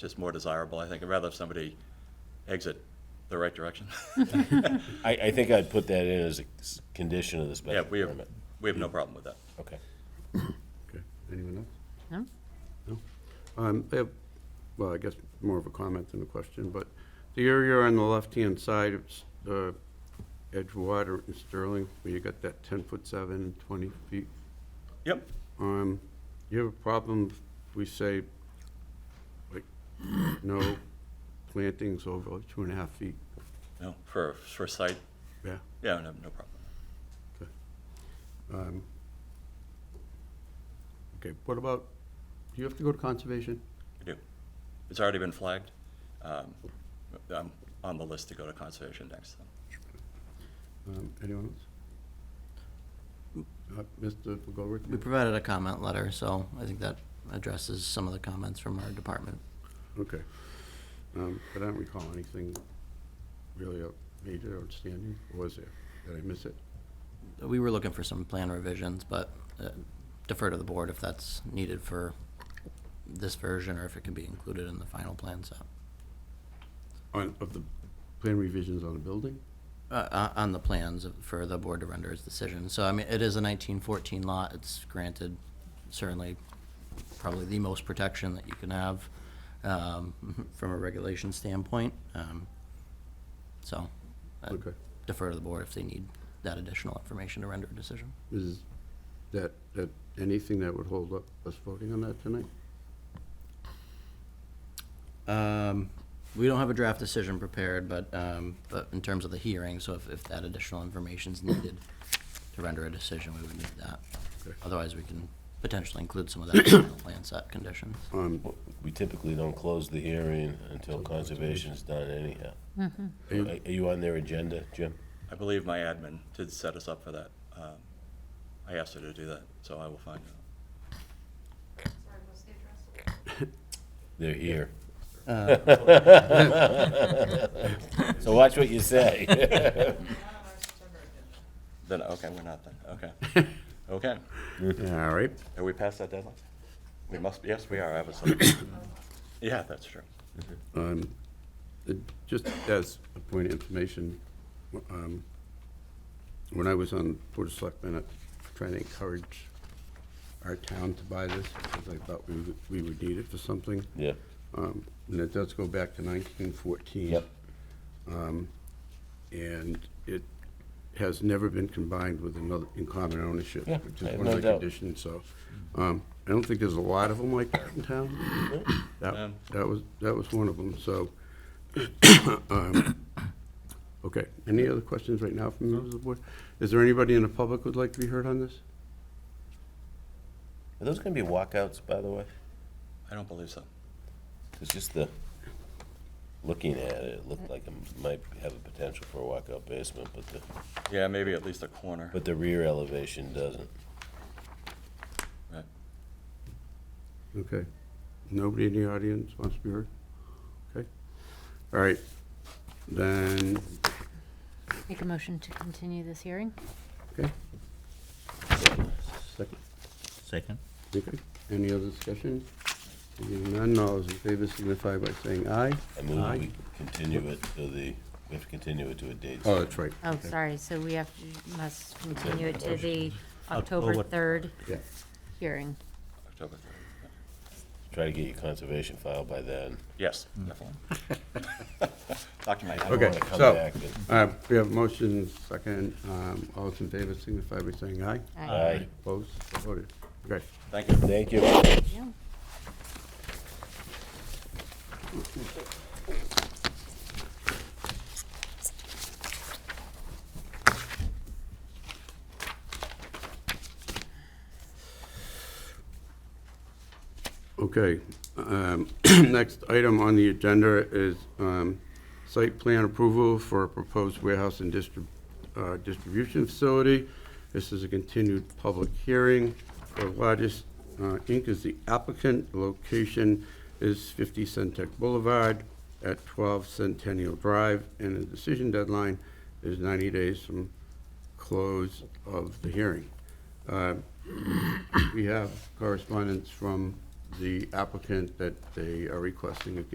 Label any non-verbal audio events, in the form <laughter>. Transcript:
just more desirable, I think. I'd rather if somebody exit the right direction. I, I think I'd put that in as a s- condition of the Yeah, special we have, permit. we have no problem with that. Okay. Okay, anyone else? No? Um, I have, well, I guess more of a comment than a question, but the area on the left-hand side, it's uh, Edgewater and Sterling, where you got that 10-foot 7 and 20 feet. Yep, Um, You have a problem if we say, like, no plantings over like two and a half feet? no, for, for site, Yeah. yeah, no, no problem. Um, Okay, what about, do you have to go to conservation? I do. It's already been flagged. Um, I'm on the list to go to conservation next. Um, Anyone else? Uh, Mr. McGolrick? We provided a comment letter, so I think that addresses some of the comments from our department. Okay. Um, But I don't recall anything really out- major outstanding, or was there? Did I miss it? We were looking for some plan revisions, but uh, defer to the board if that's needed for this version or if it can be included in the final uh, plan set. On, of the plan revisions on the building? Uh, uh, On the plans for the board to render its decision. So I mean, it is a 1914 lot. It's granted certainly probably the most protection that you can have um, <laughs> from a regulation standpoint. Um, So uh, Okay. defer to the board if they need that additional information to render a decision. Is that, that, anything that would hold up us voting on that tonight? Um, We don't have a draft decision prepared, but, um, but in terms of the hearing, so if, if that additional information's needed to render a decision, we would need that. Okay. Otherwise, we can potentially include some <coughs> of that in the plan set conditions. Um, Well, We typically don't close the hearing until conservation's done anyhow. Are you- are you on their agenda, Jim? I believe my admin did set us up for that. Um, I asked her to do that, so I will find out. Sorry, what's the address? They're here. So watch what you say. Not on our September agenda. Then, okay, we're not then, <laughs> okay. Okay, All right. are we past that deadline? We must, yes, we are, I have a second. <coughs> Yeah, that's true. Um, it- Just as a point of information, um, when I was on Board of Selectmen, I was trying to encourage our town to buy this, because I thought we would, we would need it for something. Yeah, Um, And it does go back to 1914. Yep. Um, And it has never been combined with another, in common ownership, Yeah, which I is have one no of the doubt. conditions, so. um, I don't think there's a lot of them like that in town. That Um. that was, that was one of them, so. <coughs> um, Okay, any other questions right now from members of the board? Is there anybody in the public who'd like to be heard on this? are those gonna be walkouts, by the way? I don't believe so. It's just the, looking at it, it looked like it might have a potential for a walkout basement, but the, Yeah, maybe at least a corner. but the rear elevation doesn't. Right. Okay. Nobody in the audience wants to be heard? Okay. All right. Then, Make a motion to continue this hearing? okay. Second. Second? Okay. Any other discussion? Seeing none, all those in favor signify by saying aye. I move that Aye. we continue it to the, we have to continue it to a date. Oh, that's right. Oh, Okay. sorry, so we have, to must continue it to the October. October 3rd Yeah. hearing. October third, yeah. Try to get your conservation file by then. Yes, definitely. <laughs> Talk to my admin. Okay, wanna come so, back, but- uh, we have motion second, um, all those in favor signify by saying aye. Aye. Opposed, So voted. Okay. Thank you. Thank you. Yeah. Okay, um, <clears throat> next item on the agenda is um, site plan approval for a proposed warehouse and distrib- uh, distribution facility. This is a continued public hearing. The largest uh, Inc. is the applicant. Location is 50 Centec Boulevard at 12 Centennial Drive, and the decision deadline is 90 days from close of the hearing. Uh, we have correspondence from the applicant that they are requesting a